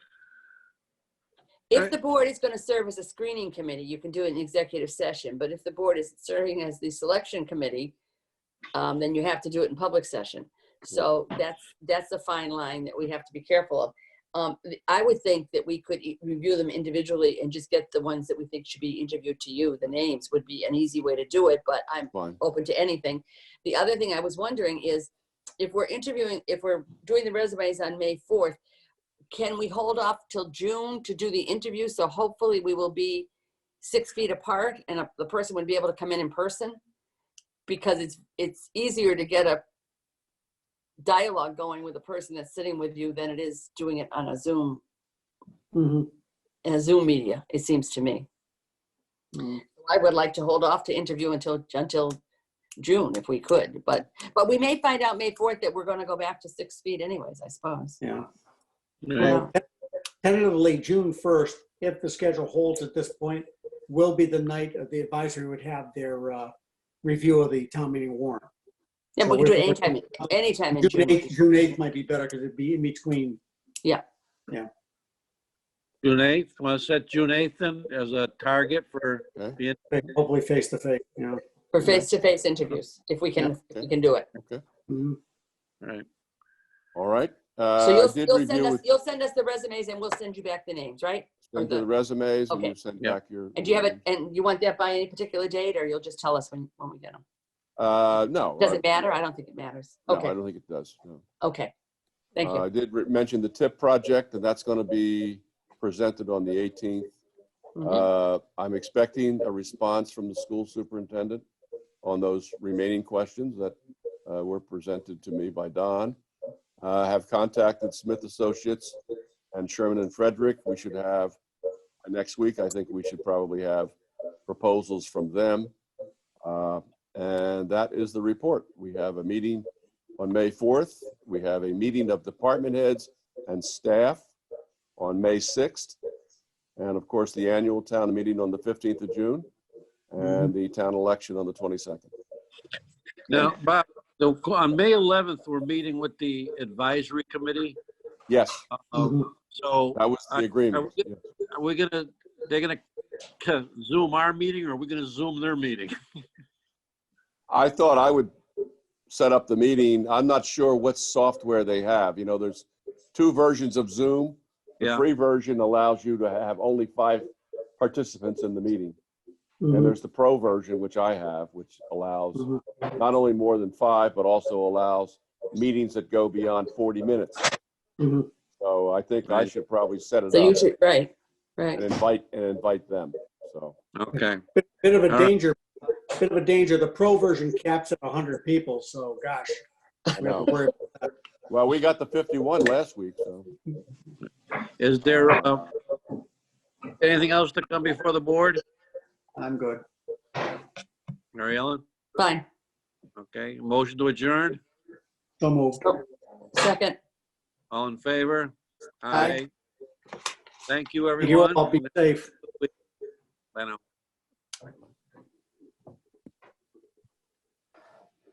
If the board is going to serve as a screening committee, you can do it in executive session, but if the board is serving as the selection committee, um, then you have to do it in public session. So that's, that's a fine line that we have to be careful of. Um, th- I would think that we could e- review them individually and just get the ones that we think should be interviewed to you. The names would be an easy way to do it, but I'm Fine. open to anything. The other thing I was wondering is if we're interviewing, if we're doing the resumes on May 4th, can we hold off till June to do the interview? So hopefully we will be six feet apart and a- the person would be able to come in in person? Because it's, it's easier to get a dialogue going with the person that's sitting with you than it is doing it on a Zoom, Mhm. in a Zoom media, it seems to me. I would like to hold off to interview until, until June if we could, but, but we may find out May 4th that we're gonna go back to six feet anyways, I suppose. Yeah. Yeah. Well, Tentatively, June 1st, if the schedule holds at this point, will be the night of the advisory would have their uh, review of the town meeting warrant. Yeah, So we can do it we're- anytime, anytime in June June. 8th, June 8th might be better because it'd be in between. June 8th, want to set June 8th then as a target for Okay. being, Hopefully face to face, you know. For face-to-face interviews, if we can, if we can do it. Mhm. right, All right. So Uh, I you'll, did you'll send review us, with, you'll send us the resumes and we'll send you back the names, right? send the- the resumes and okay. you send Yeah. back your. And do you have it, and you want that by any particular date, or you'll just tell us when, when we get them? Uh, no. Does I- it matter? I don't think it matters. No, I Okay, don't think it does. no. okay. Thank Uh, you. I did re- mention the TIP project and that's going to be presented on the 18th. Mhm. Uh, I'm expecting a response from the school superintendent on those remaining questions that uh, were presented to me by Don. Uh, I have contacted Smith Associates and Sherman and Frederick. We should have, next week, I think we should probably have proposals from them. Uh, And that is the report. We have a meeting on May 4th. We have a meeting of department heads and staff on May 6th. And of course, the annual town meeting on the 15th of June Mm-hmm. and the town election on the 22nd. now, Bob, so on May 11th, we're meeting with the advisory committee. Yes, Uh, Mhm. So that was the agreement. I- are we gonna, they're gonna ca- Zoom our meeting or are we gonna Zoom their meeting? I thought I would set up the meeting. I'm not sure what software they have. You know, there's two versions of Zoom. The Yeah. free version allows you to have only five participants in the meeting. And Mhm. there's the pro version, which I have, which allows Mhm. not only more than five, but also allows meetings that go beyond 40 minutes. Mhm. So I think I Right. should probably set it So you up should, right, uh, and right. invite, and invite them, so. Okay, Bit bit of a All right. danger, bit of a danger. The pro version caps at 100 people, so gosh. we have to worry. Well, we got the 51 last week, so. is there, uh, anything else to come before the board? I'm good. Mary Ellen, Fine. okay, motion to adjourn, So moved. Second, all in favor? Aye. Thank you, You everyone. all be safe. I know.